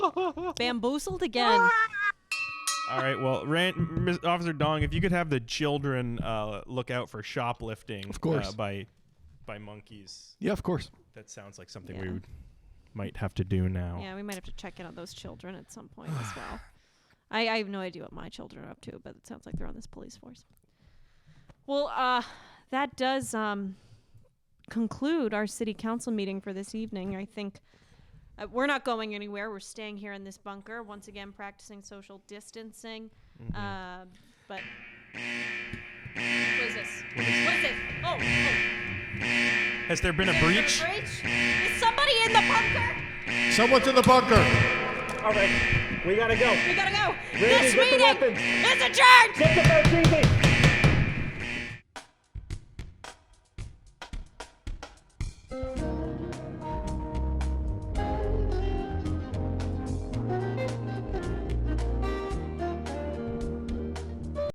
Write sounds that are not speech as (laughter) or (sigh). Bamboozled again. All right. Well, Ran- Ms. Officer Dong, if you could have the children uh, look out for shoplifting, Of course. uh, by by monkeys. Yeah, of course. That sounds like something Yeah. we would, might have to do now. Yeah, we might have to check in on those children at some point (sighs) as well. I, I have no idea what my children are up to, but it sounds like they're on this police force. Well, uh, that does um, conclude our city council meeting for this evening. I think uh, we're not going anywhere. We're staying here in this bunker once again, practicing social distancing. Uh, but what is this? What is, this? Oh, oh. Has there been a breach? breach? Is somebody in the bunker? Someone's in the bunker. All right, we gotta go. We gotta go. Randy, this get the meeting weapons. is adjourned. Get the Bertuzzi.